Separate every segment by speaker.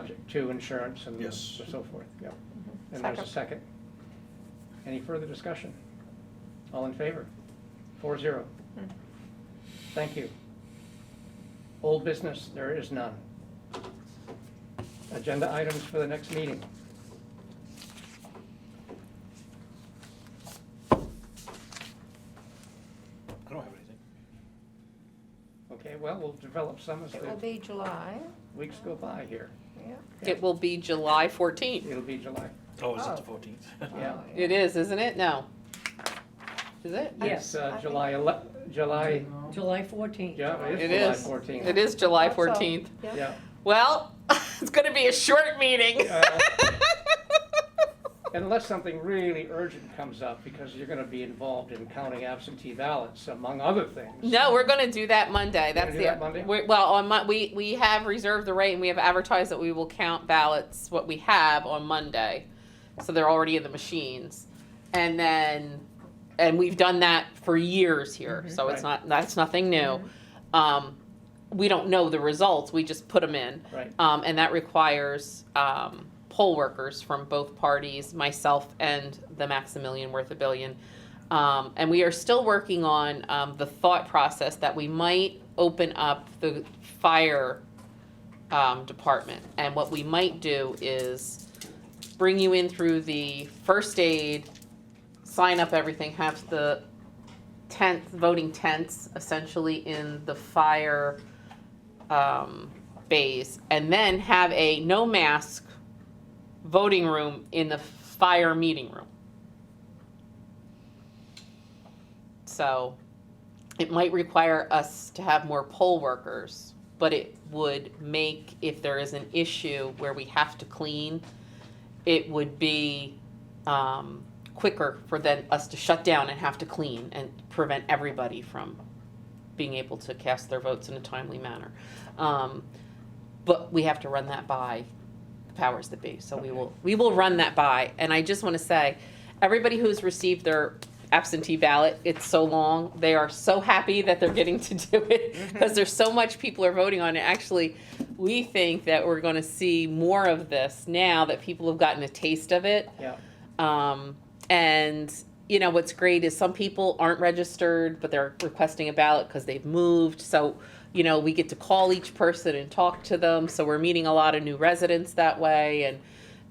Speaker 1: subject to insurance and
Speaker 2: Yes.
Speaker 1: so forth, yep.
Speaker 3: Mm-hmm.
Speaker 1: And there's a second. Any further discussion? All in favor? Four zero.
Speaker 3: Mm.
Speaker 1: Thank you. Old business, there is none. Agenda items for the next meeting.
Speaker 2: I don't have anything.
Speaker 1: Okay, well, we'll develop some as
Speaker 3: It will
Speaker 1: the
Speaker 3: be July,
Speaker 1: weeks go by here.
Speaker 3: yeah.
Speaker 4: It will be July 14th.
Speaker 1: It'll be July.
Speaker 2: Oh, is it
Speaker 3: Oh.
Speaker 2: the fourteenth?
Speaker 1: Yeah.
Speaker 3: Oh,
Speaker 4: It is, isn't it? No. Is it?
Speaker 1: Yes.
Speaker 3: I think-
Speaker 1: uh, July ele, July,
Speaker 5: July fourteenth.
Speaker 1: yeah,
Speaker 4: It
Speaker 1: it
Speaker 4: is.
Speaker 1: is July 14th.
Speaker 4: It is July
Speaker 3: Hope so.
Speaker 4: 14th.
Speaker 3: Yep.
Speaker 1: Yeah.
Speaker 4: Well, it's going to be a short meeting.
Speaker 1: Uh, Unless something really urgent comes up, because you're gonna be involved in counting absentee ballots, among other things.
Speaker 4: No, we're going to do that Monday.
Speaker 1: gonna
Speaker 4: That's
Speaker 1: do
Speaker 4: the
Speaker 1: that Monday?
Speaker 4: we're- well on Mon- we we have reserved the rate and we have advertised that we will count ballots what we have on Monday, so they're already in the machines, and then and we've done that for years here,
Speaker 1: Mm-hmm.
Speaker 4: so it's not that's nothing new. Um, we don't know the results; we just put them in,
Speaker 1: Right.
Speaker 4: um, and that requires um, poll workers from both parties, myself and the Maximilian Worth a Billion. Um, and we are still working on um, the thought process that we might open up the fire um, department. And what we might do is bring you in through the first aid, sign up everything, have the tent, voting tents essentially in the fire um, bays, and then have a no mask voting room in the fire meeting room. So it might require us to have more poll workers, but it would make, if there is an issue where we have to clean, it would be um, quicker for then us to shut down and have to clean and prevent everybody from being able to cast their votes in a timely manner. Um, but we have to run that by the powers that be. So we will we will run that by. And I just want to say, everybody who's received their absentee ballot, it's so long. They are so happy that they're getting to do it because there's so much people are voting on it. Actually, we think that we're going to see more of this now that people have gotten a taste of it.
Speaker 1: Yeah.
Speaker 4: Um, and you know what's great is some people aren't registered, but they're requesting a ballot because they've moved. So you know we get to call each person and talk to them. So we're meeting a lot of new residents that way, and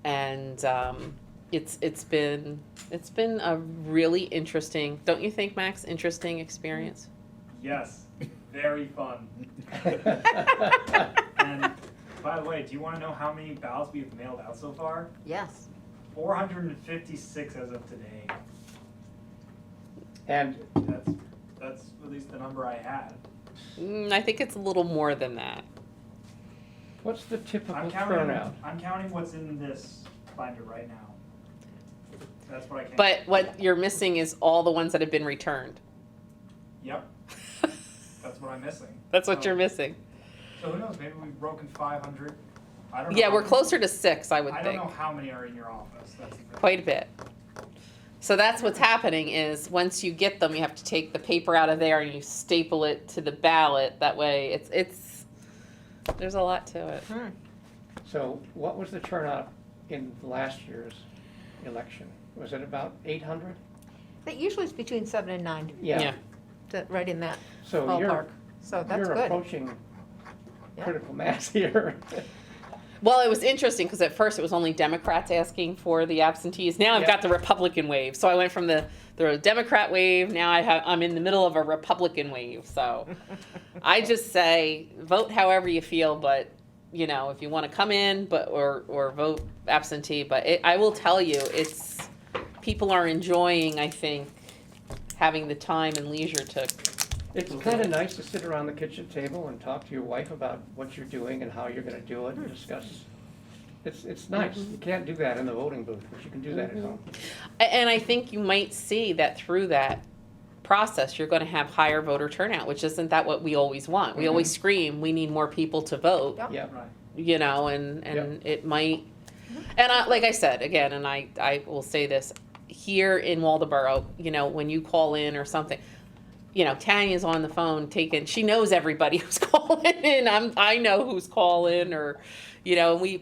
Speaker 4: and um, it's it's been it's been a really interesting, don't you think, Max? Interesting experience.
Speaker 6: Yes, very fun. And by the way, do you want to know how many ballots we've mailed out so far?
Speaker 3: Yes.
Speaker 6: 456 as of today.
Speaker 1: And
Speaker 6: That's that's at least the number I had.
Speaker 4: Mm, I think it's a little more than that.
Speaker 1: what's the typical
Speaker 6: I'm counting.
Speaker 1: turnout?
Speaker 6: I'm counting what's in this binder right now. That's what I can.
Speaker 4: But what you're missing is all the ones that have been returned.
Speaker 6: Yep, that's what I'm missing.
Speaker 4: That's what
Speaker 6: So-
Speaker 4: you're missing.
Speaker 6: So who knows? Maybe we've broken 500. I don't.
Speaker 4: Yeah,
Speaker 6: know.
Speaker 4: we're closer to six, I would
Speaker 6: I
Speaker 4: think.
Speaker 6: don't know how many are in your office. That's the thing.
Speaker 4: quite a bit. So that's what's happening is once you get them, you have to take the paper out of there and you staple it to the ballot. That way, it's it's there's a lot to it.
Speaker 1: So what was the turnout in last year's election? Was it about eight hundred?
Speaker 3: That usually is between seven and nine,
Speaker 4: Yeah.
Speaker 3: that, right in that
Speaker 1: So
Speaker 3: ballpark,
Speaker 1: you're,
Speaker 3: so that's
Speaker 1: you're
Speaker 3: good.
Speaker 1: approaching
Speaker 3: Yeah.
Speaker 1: critical mass here.
Speaker 4: Well, it was interesting because at first it was only Democrats asking for the absentees. Now I've
Speaker 1: Yeah.
Speaker 4: got the Republican wave. So I went from the the Democrat wave. Now I have I'm in the middle of a Republican wave. So I just say vote however you feel, but you know if you want to come in, but or or vote absentee. But it, I will tell you, it's people are enjoying. I think having the time and leisure to
Speaker 1: It's kind of nice to sit around the kitchen table and talk to your wife about what you're doing and how you're gonna do it and discuss. It's, it's nice. You can't do that in the voting booth, but you can do that at home.
Speaker 4: A- And I think you might see that through that process, you're going to have higher voter turnout, which isn't that what we always want? We always scream, we need more people to vote,
Speaker 3: Yep.
Speaker 1: Yeah.
Speaker 6: Right.
Speaker 4: you know, and, and it might. And I, like I said, again, and I, I will say this here in Waldeboro, you know, when you call in or something, you know, Tanya's on the phone taking, she knows everybody who's calling in. I'm, I know who's calling or, you know, and we,